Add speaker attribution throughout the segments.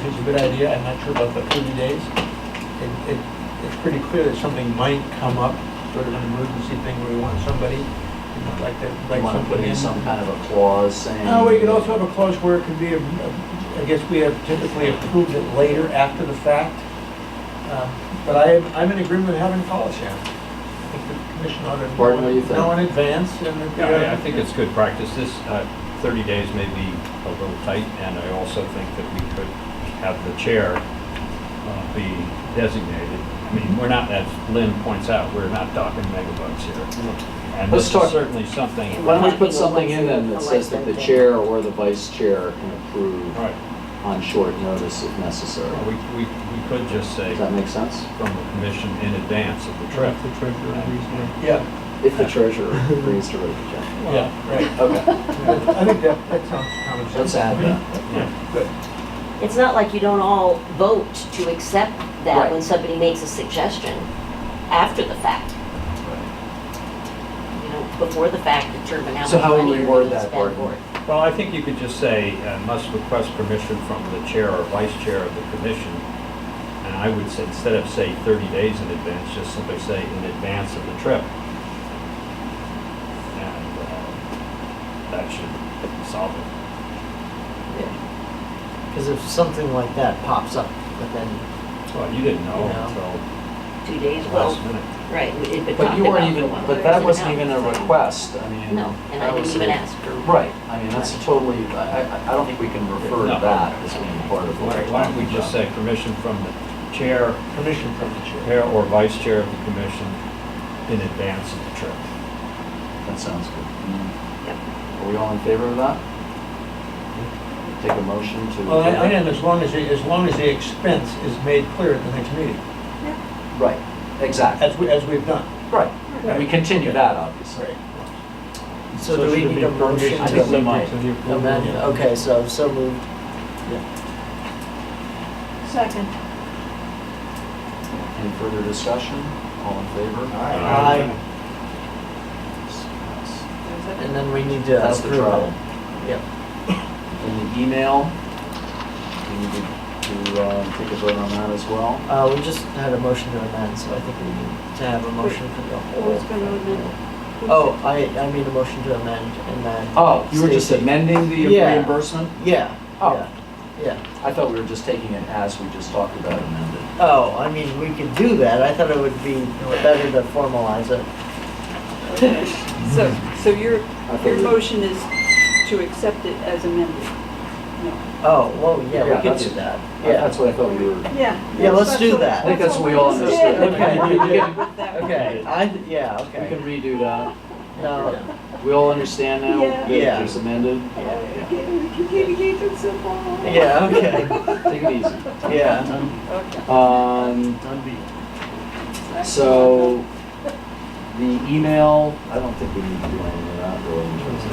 Speaker 1: is a good idea, I'm not sure about the thirty days. It- it- It's pretty clear that something might come up, sort of an emergency thing where we want somebody, you know, like that, like
Speaker 2: You want to put
Speaker 1: somebody
Speaker 2: in some kind of a clause saying.
Speaker 1: No, we could also have a clause where it could be, I guess we have typically approved it later after the fact. Um, But I, I'm in agreement with having calls here. I think the commission ought to.
Speaker 2: Gordon, what do you think?
Speaker 1: Know in advance and. if we
Speaker 3: Yeah, I- I
Speaker 1: have-
Speaker 3: think it's good practice. This, uh, 30 days may be a little tight, and I also think that we could have the chair uh, be designated. I mean, we're not, as Lynn points out, we're not talking megabucks here. And
Speaker 2: Let's
Speaker 3: this
Speaker 2: talk-
Speaker 3: is certainly something,
Speaker 2: Why don't we put something in then that says that the chair or the vice chair can approve
Speaker 3: right,
Speaker 2: on short notice if
Speaker 3: well,
Speaker 2: necessary?
Speaker 3: we, we we could just say
Speaker 2: Does that make sense?
Speaker 3: from the commission in advance of the trip.
Speaker 4: The treasurer agrees with
Speaker 1: Yeah,
Speaker 2: If the treasurer agrees to raise the check.
Speaker 1: yeah, right.
Speaker 2: Okay,
Speaker 1: I think that, that sounds common sense.
Speaker 2: let's add that.
Speaker 3: Yeah.
Speaker 1: Good.
Speaker 5: It's not like you don't all vote to accept that
Speaker 2: Right.
Speaker 5: when somebody makes a suggestion after the fact. You know, before the fact determine how
Speaker 2: So how
Speaker 5: much
Speaker 2: would
Speaker 5: money
Speaker 2: we
Speaker 5: you're
Speaker 2: word
Speaker 5: going to
Speaker 2: that,
Speaker 5: spend
Speaker 2: Gordon?
Speaker 5: for it.
Speaker 3: Well, I think you could just say, uh, must request permission from the chair or vice chair of the commission. And I would say, instead of say 30 days in advance, just simply say in advance of the trip. And uh, that should solve it.
Speaker 6: Because if something like that pops up, but then,
Speaker 3: Well, you didn't know
Speaker 6: Yeah.
Speaker 3: until
Speaker 5: Two days, well,
Speaker 3: last minute.
Speaker 5: right, we did, but
Speaker 2: But
Speaker 5: talked
Speaker 2: you
Speaker 5: about
Speaker 2: weren't
Speaker 5: it
Speaker 2: even,
Speaker 5: a while.
Speaker 2: but that
Speaker 5: It
Speaker 2: wasn't even a
Speaker 5: out.
Speaker 2: request, I mean.
Speaker 5: No, and
Speaker 2: that
Speaker 5: I
Speaker 2: was
Speaker 5: didn't even
Speaker 2: a-
Speaker 5: ask for.
Speaker 2: Right, I mean, that's totally, I, I- I don't think we can refer to
Speaker 3: No.
Speaker 2: that as being part of what
Speaker 3: Why
Speaker 2: we're
Speaker 3: why don't we
Speaker 2: talking
Speaker 3: just
Speaker 2: about.
Speaker 3: say permission from the chair,
Speaker 1: Permission from the chair.
Speaker 3: chair or vice chair of the commission in advance of the trip?
Speaker 2: That sounds good.
Speaker 5: Yep.
Speaker 2: Are we all in favor of that? Take a motion to.
Speaker 1: Well, I, I am, as long as, the- as long as the expense is made clear at the next meeting,
Speaker 2: Right, exactly,
Speaker 1: as we, as we've done.
Speaker 2: right. And we continue that, obviously.
Speaker 6: so do we
Speaker 1: should
Speaker 6: need
Speaker 1: be
Speaker 6: a motion
Speaker 1: permission
Speaker 2: I think we
Speaker 6: to
Speaker 2: might.
Speaker 6: amend?
Speaker 1: Yeah.
Speaker 6: Okay, so, so moved.
Speaker 7: Second.
Speaker 2: Any further discussion? All in favor?
Speaker 6: Aye. And then we need to
Speaker 2: That's the
Speaker 6: approve
Speaker 2: travel.
Speaker 6: it. Yep.
Speaker 2: And the email, we need to, to, uh, take a vote on that as well.
Speaker 6: Uh, we just had a motion to amend, so I think we need to have a motion for the whole.
Speaker 7: Who's gonna amend
Speaker 6: Oh, I, I mean a motion to amend and then.
Speaker 2: Oh, you were just
Speaker 6: Stacy.
Speaker 2: amending the
Speaker 6: Yeah.
Speaker 2: reimbursement?
Speaker 6: Yeah,
Speaker 2: Oh.
Speaker 6: yeah, yeah.
Speaker 2: I thought we were just taking it as we just talked about amended.
Speaker 6: Oh, I mean, we could do that. I thought it would be better to formalize it.
Speaker 7: Okay. So, so your, your
Speaker 2: we-
Speaker 7: motion is to accept it as amended? No.
Speaker 6: Oh, well,
Speaker 2: Yeah,
Speaker 6: yeah, we could
Speaker 2: that's-
Speaker 6: do that.
Speaker 2: Yeah,
Speaker 6: Yeah.
Speaker 2: That's what I thought we were.
Speaker 7: Yeah.
Speaker 6: Yeah, let's do that.
Speaker 2: I think that's what we all understood.
Speaker 6: Okay.
Speaker 2: Okay.
Speaker 6: I, yeah, okay.
Speaker 2: We can redo that.
Speaker 6: No,
Speaker 2: We all understand now
Speaker 7: Yeah.
Speaker 2: that
Speaker 6: Yeah.
Speaker 2: it's amended?
Speaker 7: Communication simple.
Speaker 6: yeah, okay,
Speaker 2: Take it easy.
Speaker 6: yeah.
Speaker 7: Okay.
Speaker 2: Um, so, the email, I don't think we need to do anything of that really in terms of.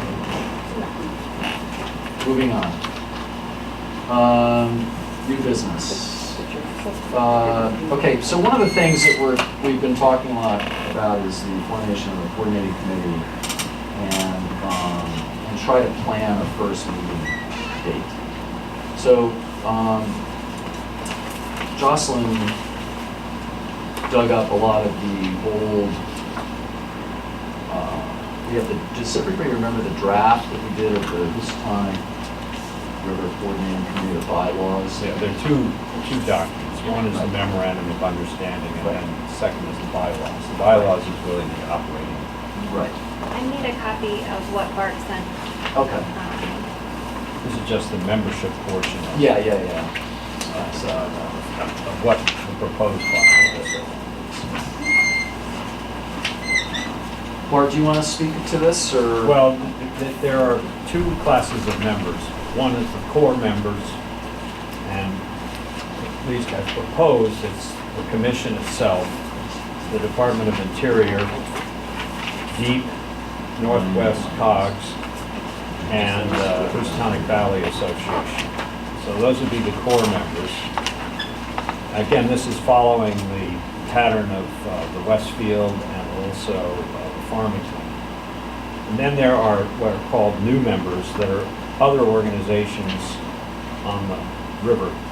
Speaker 2: Moving on. Um, new business. Uh, okay, so one of the things that we're, we've been talking a lot about is the formation of a coordinating committee and, um, and try to plan a first meeting date. So, um, Jocelyn dug up a lot of the old, uh, we have the, does everybody remember the draft that we did of the, this time? River coordinating committee of bylaws?
Speaker 3: Yeah, there are two, two documents. One is the memorandum of understanding, and then the second is the bylaws. The bylaws is really the operating.
Speaker 2: Right,
Speaker 8: I need a copy of what Bart sent.
Speaker 2: okay.
Speaker 8: um,
Speaker 3: This is just the membership portion of.
Speaker 2: Yeah, yeah, yeah.
Speaker 3: Of uh, of what the proposed bylaws is.
Speaker 2: Bart, do you want to speak to this, or?
Speaker 3: Well, th- th- there are two classes of members. One is the core members, and at least as proposed, it's the commission itself, the Department of Interior, DEEP, Northwest COGS, and uh, Houstonic Valley Association. So those would be the core members. Again, this is following the pattern of uh, the Westfield and also uh, Farmington. And then there are what are called new members that are other organizations on the river